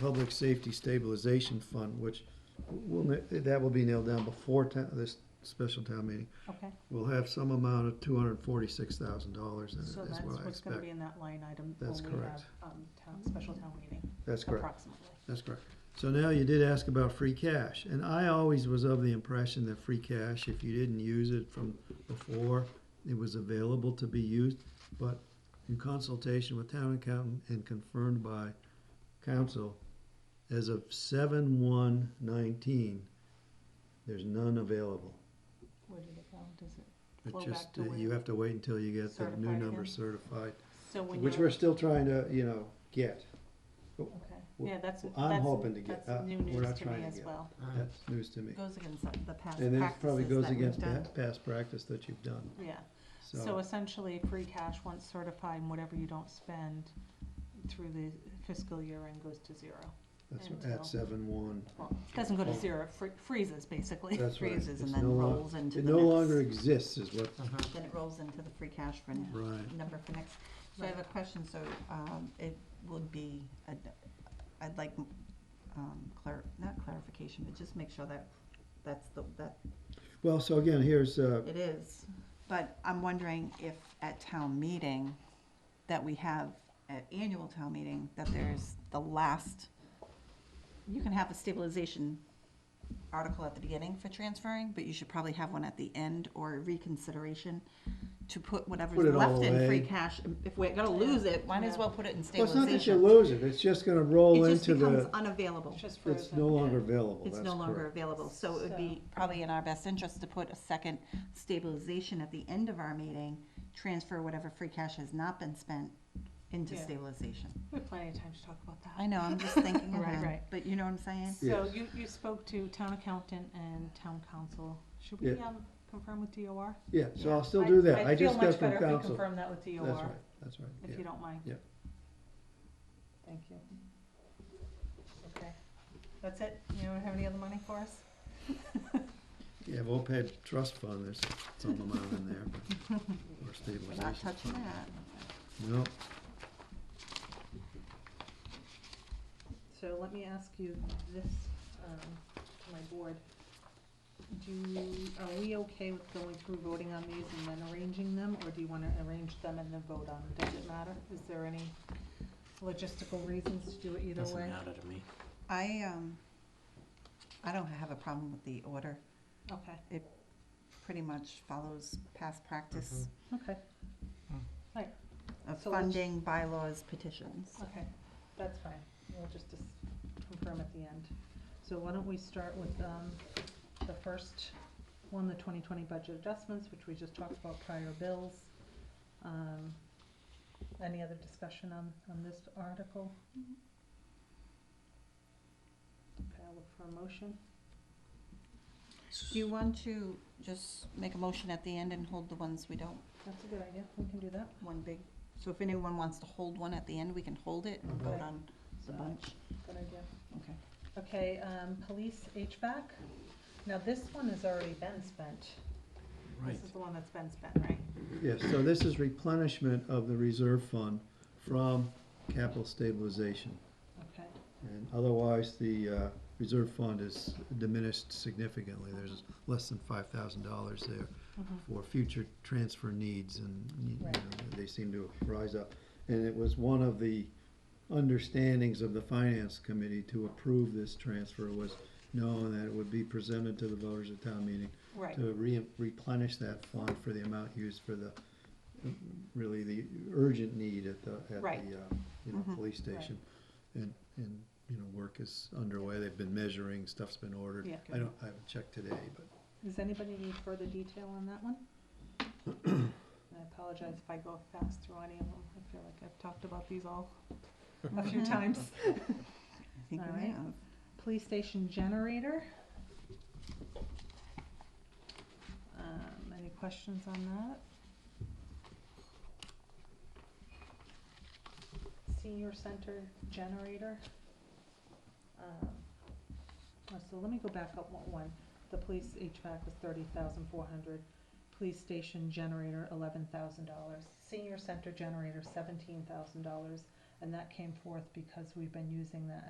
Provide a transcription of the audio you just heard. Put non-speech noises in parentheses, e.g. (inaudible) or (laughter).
Public Safety Stabilization Fund, which will, ne- that will be nailed down before town, this special town meeting. Okay, We'll have some amount of two hundred and forty-six thousand dollars in it, is so that's what I what's gonna be expect. in that line item. when That's we correct. have, um, town- Special town meeting, That's correct, approximately. that's correct. So now you did ask about free cash, and I always was of the impression that free cash, if you didn't use it from before, it was available to be used, but in consultation with town accountant and confirmed by council, as of seven one nineteen, there's none available. Where did it go? Does it, It's Flow just, back to that you when have to wait until you get the new certified number again? certified, so when which we're you're, still trying to, you know, get. okay, we're- yeah, that's, that's, I'm hoping to get, uh, that's new we're news not to me trying to as get. well. That's news to me. Goes against the past And it probably practices goes that we've against pa- done. past practice that you've done, Yeah, so so. essentially, free cash, once certified, and whatever you don't spend through the fiscal year end goes to zero. That's and at so- seven one. Well, it doesn't go to Oh. zero, it fr- freezes, basically. That's right. freezes and It's then no lo- rolls into It the no next. longer exists is what, Then it rolls into the free cash for, n- right. number for next. So I have a question, so, um, it would be, I'd, I'd like, um, clar- not clarification, but just make sure that, that's the, that Well, so again, here's, uh, it is. But I'm wondering if at town meeting, that we have, at annual town meeting, that there's the last, you can have a stabilization article at the beginning for transferring, but you should probably have one at the end or reconsideration to put whatever's Put it all left in free away. cash. If we're gonna lose it, might as well put it in well, it's not that you stabilization. lose it, it's just gonna roll It just into becomes the, unavailable. just it's no longer available, that's It's no longer correct. available, so it would be probably in our best interest to put a second stabilization at the end of our meeting, transfer whatever free cash has not been spent into Yeah. stabilization. We have plenty of time to talk about that. I know, I'm just (laughs) thinking Right, ahead, right. but you know what I'm saying? So Yes. you, you spoke to town accountant and town council. Should we, Yeah. um, confirm with DOR? Yeah, so I'll still do that, I just got from feel much better if we council. confirm that with That's right, DOR, that's right, if yeah. you don't mind. Yeah. Thank you. Okay, that's it? You don't have any other money for us? Yeah, OPEB trust fund, there's some amount in there, (laughs) but- or We're not stabilization. touching fund. that. No, So let me ask you this, um, to my board. Do, are we okay with going through voting on these and then arranging them, or do you wanna arrange them and then vote on them? Does it matter? Is there any logistical reasons to do it either Doesn't way? matter to me. I, um, I don't have a problem with the order, Okay, pretty much follows past practice okay, Mm-hmm. of So let's- funding bylaws petitions. okay, that's fine. We'll just dis- confirm at the end. So why don't we start with, um, the first one, the twenty twenty budget adjustments, which we just talked about prior bills. Um, any other discussion on, on this article? Okay, I'll look for a motion. Do you want to just make a motion at the end and hold the ones we don't That's a good idea. We can do that. one big, so if anyone wants to hold one at the end, we can hold it and vote on the bunch. Good idea. Okay. Okay, um, police HVAC. Now, this one has already been spent. Right. This is the one that's been spent, right? yes, so this is replenishment of the reserve fund from capital stabilization. Okay. And otherwise, the uh, reserve fund is diminished significantly. There's less than five thousand dollars there Mhm. for future transfer needs, and you know, Right. they seem to rise up. And it was one of the understandings of the finance committee to approve this transfer was knowing that it would be presented to the voters at town meeting Right, to re- replenish that fund for the amount used for the, really the urgent need at the, at Right. Mm-hmm. the, uh, you know, Mhm. police station. And, and, you know, work is underway, they've been measuring, stuff's been ordered. Yeah. I don't, I haven't checked today, but Does anybody need further detail on that one? I apologize if I go fast through any of them. I feel like I've talked about these all a few times. I think All we right. have. Police station generator. Um, any questions on that? Senior center generator. Um, oh, So let me go back up one, one. The police HVAC was thirty thousand four hundred, police station generator eleven thousand dollars, senior center generator seventeen thousand dollars. And that came forth because we've been using that